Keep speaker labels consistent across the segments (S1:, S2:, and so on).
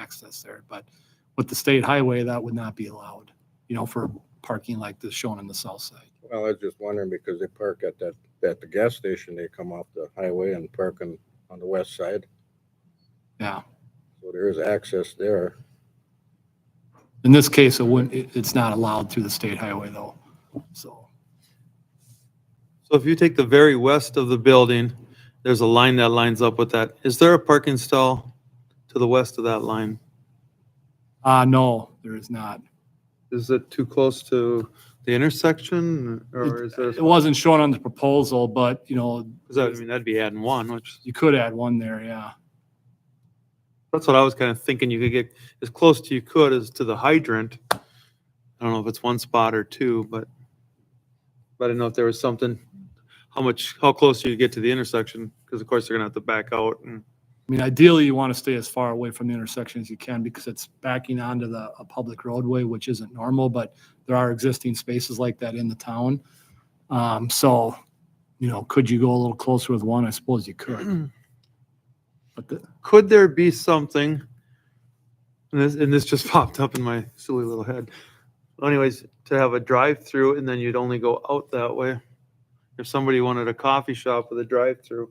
S1: access there. But with the state highway, that would not be allowed, you know, for parking like this shown on the south side.
S2: Well, I was just wondering because they park at that, at the gas station, they come off the highway and park on, on the west side.
S1: Yeah.
S2: So there is access there.
S1: In this case, it wouldn't, it, it's not allowed through the state highway though. So,
S3: So if you take the very west of the building, there's a line that lines up with that. Is there a parking stall to the west of that line?
S1: uh, no, there is not.
S3: Is it too close to the intersection or is there?
S1: uh, It wasn't shown on the proposal, but you know,
S3: 'cause I mean, that'd be adding one, which,
S1: you could add one there, yeah.
S3: that's what I was kind of thinking. You could get as close to you could as to the hydrant. I don't know if it's one spot or two, but, but I didn't know if there was something, how much, how close you get to the intersection? Because of course, they're gonna have to back out and.
S1: I mean, ideally, you want to stay as far away from the intersection as you can because it's backing onto the, a public roadway, which isn't normal, but there are existing spaces like that in the town. Um, so, you know, could you go a little closer with one? I suppose you could, but the,
S3: could there be something and this, and this just popped up in my silly little head anyways to have a drive-through and then you'd only go out that way if somebody wanted a coffee shop with a drive-through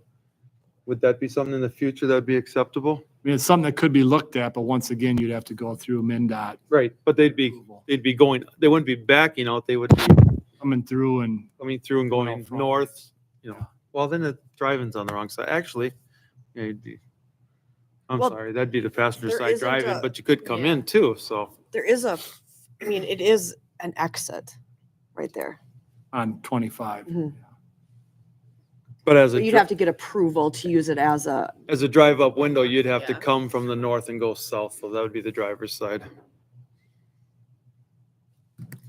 S3: would that be something in the future that'd be acceptable
S1: I mean, it's something that could be looked at, but once again, you'd have to go through MinDOT.
S3: right but they'd be
S1: approval.
S3: they'd be going they wouldn't be backing out they would be
S1: Coming through and,
S3: coming through and
S1: Going out
S3: going
S1: front.
S3: north you
S1: Yeah.
S3: know well then the driving's on the wrong side actually yeah, you'd be, i'm
S4: Well,
S3: sorry that'd be the passenger
S4: there
S3: side
S4: isn't
S3: driving
S4: a-
S3: but you could come
S4: yeah.
S3: in too so
S4: There is a, I mean, it is an exit right there.
S1: on 25.
S4: Mhm.
S3: but as a
S4: But you'd
S3: dri-
S4: have to get approval to use it as a,
S3: As a drive-up window, you'd have to
S4: Yeah.
S3: come from the north and go south, so that would be the driver's side,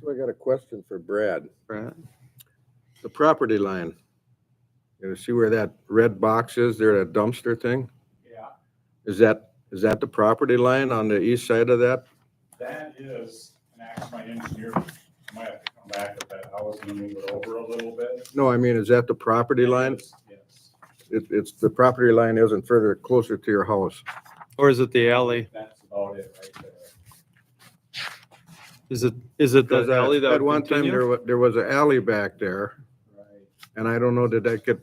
S2: So I got a question for Brad.
S3: right?
S2: The property line. You know, see where that red box is there, that dumpster thing?
S5: Yeah,
S2: Is that, is that the property line on the east side of that?
S5: that is, and ask my engineer, I might have to come back with that, I was gonna move it over a little bit.
S2: No, I mean, is that the property line?
S5: Yes,
S2: It, it's, the property line isn't further closer to your house.
S3: Or is it the alley?
S5: that's about it right there.
S3: Is it, is it
S2: Because
S3: the
S2: at-
S3: alley that
S2: At one
S3: would
S2: time, there
S3: continue?
S2: was, there was an alley back there,
S5: Right.
S2: and I don't know, did that get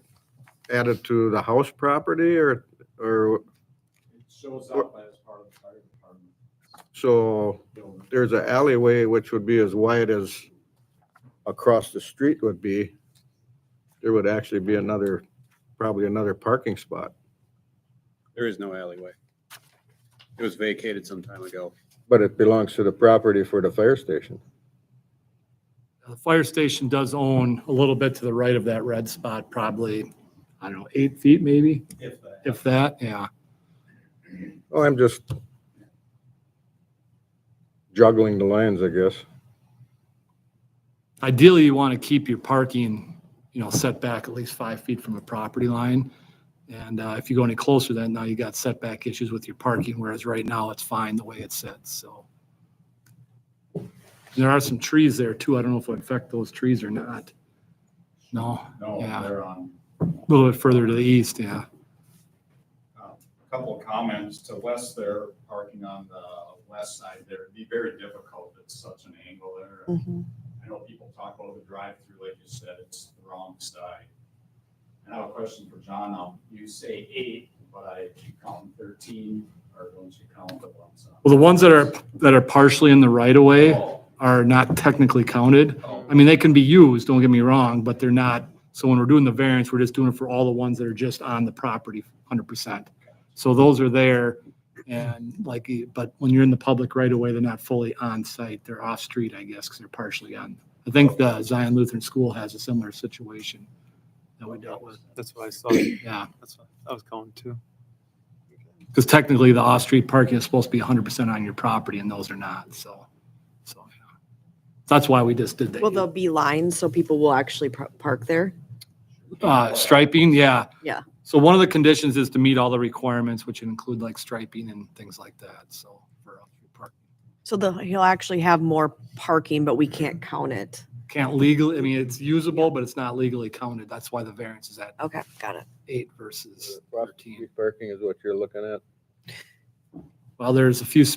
S2: added to the house property or, or,
S5: It shows up as part of the fire department
S2: so
S5: building.
S2: there's an alleyway which would be as wide as across the street would be. There would actually be another, probably another parking spot.
S6: There is no alleyway. It was vacated some time ago.
S2: But it belongs to the property for the fire station.
S1: The fire station does own a little bit to the right of that red spot, probably, I don't know, eight feet maybe,
S5: If that.
S1: if that, yeah.
S2: Oh, I'm just juggling the lines, I guess.
S1: Ideally, you want to keep your parking, you know, set back at least five feet from the property line. And uh, if you go any closer, then now you got setback issues with your parking, whereas right now it's fine the way it sits, so. There are some trees there too. I don't know if it would affect those trees or not. No,
S5: No,
S1: Yeah.
S5: they're on,
S1: a little bit further to the east, yeah.
S5: Uh, a couple of comments to Wes there, parking on the west side there, it'd be very difficult, it's such an angle there. I know people talk about the drive-through, like you said, it's the wrong side. And I have a question for John now. You say eight, but I you count thirteen, or don't you count the ones on?
S1: Well, the ones that are, that are partially in the right of way
S5: Oh,
S1: are not technically counted.
S5: oh,
S1: I mean, they can be used, don't get me wrong, but they're not, so when we're doing the variance, we're just doing it for all the ones that are just on the property, hundred percent. So those are there, and like, but when you're in the public right away, they're not fully on site, they're off-street, I guess, because they're partially on. I think the Zion Lutheran School has a similar situation that we dealt with,
S3: That's what I saw.
S1: yeah.
S3: That's what I was going to.
S1: Because technically, the off-street parking is supposed to be hundred percent on your property, and those are not, so, so, yeah. That's why we just did that.
S4: well, there'll be lines, so people will actually par- park there.
S1: Uh, striping, yeah.
S4: Yeah.
S1: So one of the conditions is to meet all the requirements, which include like striping and things like that, so. for off-street parking.
S4: So the, he'll actually have more parking, but we can't count it.
S1: Can't legally, I mean, it's usable, but it's not legally counted. That's why the variance is at
S4: Okay, got it.
S1: eight versus
S2: Property
S1: thirteen.
S2: Parking is what you're looking at?
S1: Well, there's a few